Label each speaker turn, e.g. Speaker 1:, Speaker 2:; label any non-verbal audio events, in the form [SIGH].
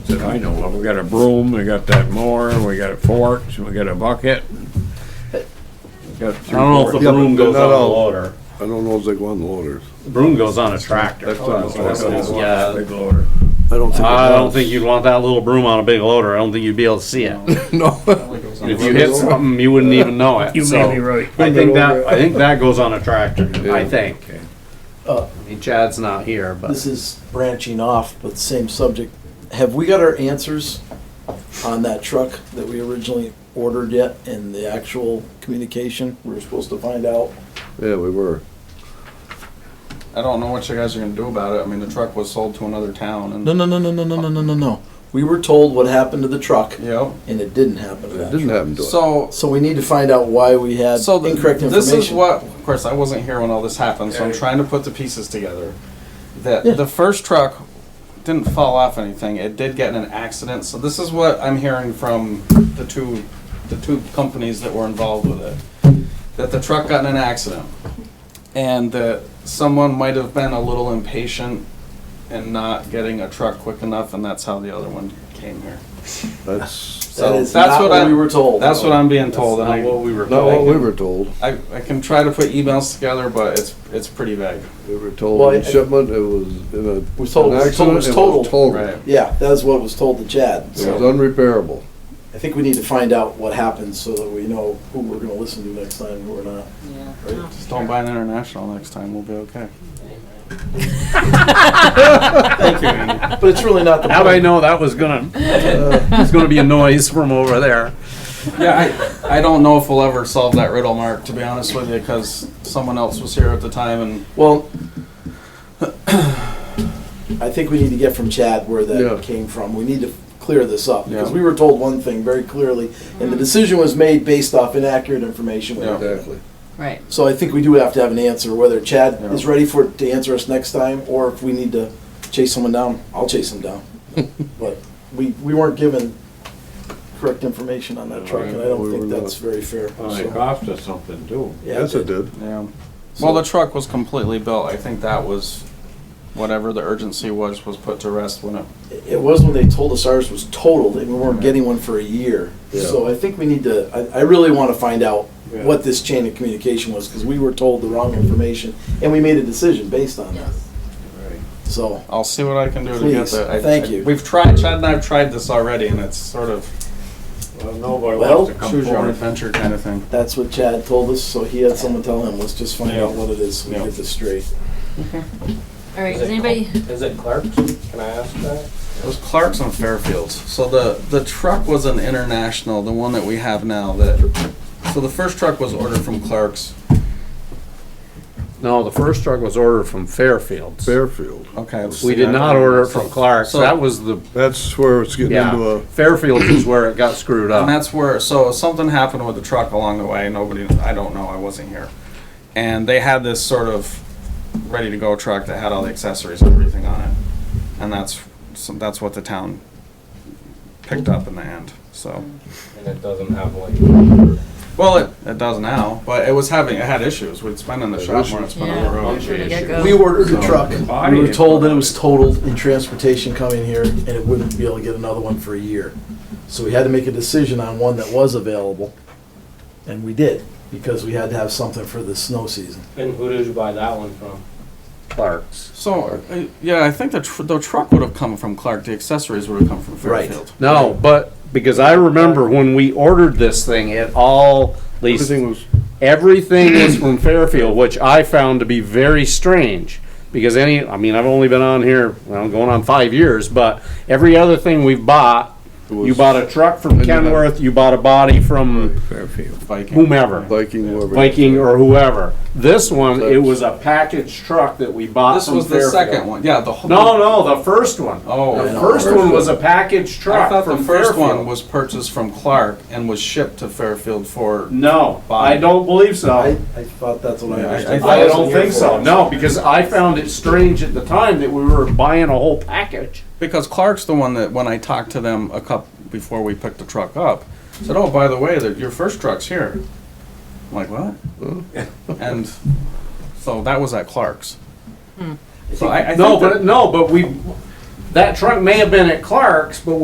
Speaker 1: that I know of. We got a broom, we got that mower, we got forks, we got a bucket. I
Speaker 2: I don't know if the broom goes
Speaker 3: Yeah,
Speaker 2: on
Speaker 3: but they're
Speaker 2: the
Speaker 3: not all-
Speaker 2: loader.
Speaker 3: I don't know if they go on loaders.
Speaker 2: Broom goes on a tractor.
Speaker 3: That's what I'm talking about.
Speaker 2: Yeah.
Speaker 1: Big loader.
Speaker 3: I don't think.
Speaker 2: I
Speaker 3: it
Speaker 2: don't
Speaker 3: does.
Speaker 2: think you'd want that little broom on a big loader. I don't think you'd be able to see it.
Speaker 3: No,
Speaker 2: If you hit something, you wouldn't even know it.
Speaker 4: You
Speaker 2: So,
Speaker 4: may be right.
Speaker 2: I think that, I think that goes on a tractor, I
Speaker 3: Yeah.
Speaker 2: think.
Speaker 5: Uh,
Speaker 2: I mean, Chad's not here,
Speaker 5: This
Speaker 2: but
Speaker 5: is branching off, but same subject. Have we got our answers on that truck that we originally ordered yet and the actual communication? We were supposed to find out.
Speaker 3: yeah, we were.
Speaker 6: I don't know what you guys are gonna do about it. I mean, the truck was sold to another town and.
Speaker 5: No, no, no, no, no, no, no, no, no, no. We were told what happened to the truck
Speaker 6: Yep.
Speaker 5: and it didn't happen to
Speaker 3: It
Speaker 5: that
Speaker 3: didn't
Speaker 5: truck.
Speaker 3: happen to us.
Speaker 6: So,
Speaker 5: So we need to find out why we had
Speaker 6: so th-
Speaker 5: incorrect information.
Speaker 6: this is what, of course, I wasn't here when all this happened, so I'm trying to put the pieces together. That
Speaker 5: Yeah.
Speaker 6: the first truck didn't fall off anything. It did get in an accident. So this is what I'm hearing from the two, the two companies that were involved with it. That the truck got in an accident and that someone might have been a little impatient and not getting a truck quick enough, and that's how the other one came here.
Speaker 5: [LAUGHS]
Speaker 3: That's
Speaker 5: That
Speaker 6: So
Speaker 5: is
Speaker 6: that's
Speaker 5: not
Speaker 6: what
Speaker 5: what
Speaker 6: I'm-
Speaker 5: we were told.
Speaker 6: That's what I'm being told, and
Speaker 2: not
Speaker 6: I,
Speaker 2: what we were
Speaker 3: not
Speaker 2: told.
Speaker 3: what we were told.
Speaker 6: I, I can try to put emails together, but it's, it's pretty vague.
Speaker 3: We were
Speaker 5: Well,
Speaker 3: told
Speaker 5: I-
Speaker 3: in shipment, it was in a.
Speaker 5: We're
Speaker 3: an
Speaker 5: told- we're told it
Speaker 3: accident,
Speaker 5: was
Speaker 3: it
Speaker 5: totaled.
Speaker 6: Right.
Speaker 5: Yeah, that is what was told to Chad.
Speaker 3: It was
Speaker 5: So
Speaker 3: unrepairable.
Speaker 5: I think we need to find out what happened so that we know who we're gonna listen to next time and who we're not.
Speaker 7: Yeah.
Speaker 6: Just don't buy an international next time, we'll be okay.
Speaker 5: But
Speaker 6: [LAUGHS]
Speaker 5: it's really not the
Speaker 2: How'd I
Speaker 5: point.
Speaker 2: know that was gonna, it's gonna be a noise from over there?
Speaker 6: Yeah, I, I don't know if we'll ever solve that riddle, Mark, to be honest with you, because someone else was here at the time and.
Speaker 5: Well, [CLEARS THROAT] I think we need to get from Chad where
Speaker 3: Yeah.
Speaker 5: that came from. We need to clear this up, because
Speaker 6: Yeah.
Speaker 5: we were told one thing very clearly, and the decision was made based off inaccurate information. we
Speaker 6: Yeah.
Speaker 5: had.
Speaker 3: Exactly.
Speaker 7: Right.
Speaker 5: So I think we do have to have an answer, whether Chad
Speaker 6: Yeah.
Speaker 5: is ready for, it to answer us next time, or if we need to chase someone down, I'll chase him
Speaker 6: [LAUGHS]
Speaker 5: down. But we, we weren't given correct information on that truck, and I
Speaker 3: We
Speaker 5: don't
Speaker 3: were
Speaker 5: think
Speaker 3: not.
Speaker 5: that's very fair.
Speaker 1: Well, it
Speaker 5: so-
Speaker 1: cost us something too.
Speaker 5: Yeah,
Speaker 3: Yes, it did.
Speaker 6: Yeah.
Speaker 5: So-
Speaker 6: Well, the truck was completely built. I think that was, whatever the urgency was, was put to rest when it
Speaker 5: It was when they told us ours was totaled and we weren't getting one for a year.
Speaker 3: Yeah.
Speaker 5: So I think we need to, I, I really want to find out
Speaker 1: Yeah.
Speaker 5: what this chain of communication was because we were told the wrong information and we made a decision based on that. So,
Speaker 6: I'll see what I can do to get
Speaker 5: Please,
Speaker 6: that. I-
Speaker 5: thank
Speaker 6: I-
Speaker 5: you.
Speaker 6: We've tried, Chad and I have tried this already, and it's sort of
Speaker 1: Well, nobody
Speaker 5: Well,
Speaker 1: wants to come
Speaker 6: choose your own
Speaker 1: forward.
Speaker 6: adventure kind of thing.
Speaker 5: that's what Chad told us, so he had someone tell him, let's just find
Speaker 6: Yeah.
Speaker 5: out what it is, so we
Speaker 6: Yeah.
Speaker 5: get this straight.
Speaker 7: All right, does anybody,
Speaker 8: Is it Clark's? Can I ask that?
Speaker 6: It was Clark's and Fairfields. So the, the truck was an international, the one that we have now. That so the first truck was ordered from Clark's.
Speaker 2: No, the first truck was ordered from Fairfields.
Speaker 3: Fairfield.
Speaker 6: Okay. let's
Speaker 2: We
Speaker 6: see.
Speaker 2: did not order it from Clark's.
Speaker 6: So-
Speaker 2: That was the,
Speaker 3: That's where it's getting into
Speaker 2: yeah,
Speaker 3: a.
Speaker 2: Fairfields is where it got screwed
Speaker 6: And
Speaker 2: up.
Speaker 6: that's where so something happened with the truck along the way. Nobody, I don't know, I wasn't here. And they had this sort of ready to go truck that had all the accessories and everything on it, and that's so that's what the town picked up in the end. So.
Speaker 8: And it doesn't have like.
Speaker 6: Well, it, it does now, but it was having, it had issues. We'd spend in the shop more, than it's been on the
Speaker 7: yeah,
Speaker 6: road.
Speaker 7: from the
Speaker 5: We
Speaker 7: get-go?
Speaker 5: ordered a truck.
Speaker 1: Body
Speaker 5: We were
Speaker 1: is
Speaker 5: told that it
Speaker 1: what
Speaker 5: was totaled in transportation coming here and it wouldn't be able to get another one for a year. So we had to make a decision on one that was available. And we did, because we had to have something for the snow season.
Speaker 8: And who did you buy that one from?
Speaker 2: Clark's.
Speaker 6: So, uh, yeah, I think the, tr- the truck would have come from Clark, the accessories would have come from
Speaker 5: Right.
Speaker 6: Fairfield.
Speaker 2: No, but, because I remember when we ordered this thing, it all, at least,
Speaker 3: Everything was.
Speaker 2: everything was from Fairfield, which I found to be very strange. Because any, I mean, I've only been on here, well, going on five years, but every other thing we've bought, you
Speaker 3: was-
Speaker 2: bought a truck from
Speaker 3: And you had-
Speaker 2: Kenworth, you bought a body from
Speaker 1: Fairfield.
Speaker 6: Viking.
Speaker 2: whomever.
Speaker 3: Viking, whoever.
Speaker 2: Viking or whoever. This one, it was a package truck that we bought
Speaker 6: This
Speaker 2: from
Speaker 6: was the
Speaker 2: Fairfield.
Speaker 6: second one, yeah, the whole.
Speaker 2: No, no, the first one.
Speaker 6: Oh.
Speaker 2: the first
Speaker 5: first
Speaker 2: one was a package
Speaker 6: I
Speaker 2: truck
Speaker 6: thought the
Speaker 2: from
Speaker 6: first one
Speaker 2: Fairfield.
Speaker 6: was purchased from Clark and was shipped to Fairfield for,
Speaker 2: No, I don't believe so.
Speaker 5: I, I
Speaker 2: I,
Speaker 5: thought that's what I
Speaker 6: Yeah, I-
Speaker 5: understood.
Speaker 6: I
Speaker 5: wasn't
Speaker 2: don't
Speaker 5: here
Speaker 2: think
Speaker 5: for
Speaker 2: so.
Speaker 5: it.
Speaker 2: No, because I found it strange at the time that we were buying a whole package.
Speaker 6: because Clark's the one that, when I talked to them a couple, before we picked the truck up, said, oh, by the way, that your first truck's here. I'm like, what? And so that was at Clark's. So I, I think
Speaker 2: No,
Speaker 6: that-
Speaker 2: but no, but we that truck may have been at Clark's, but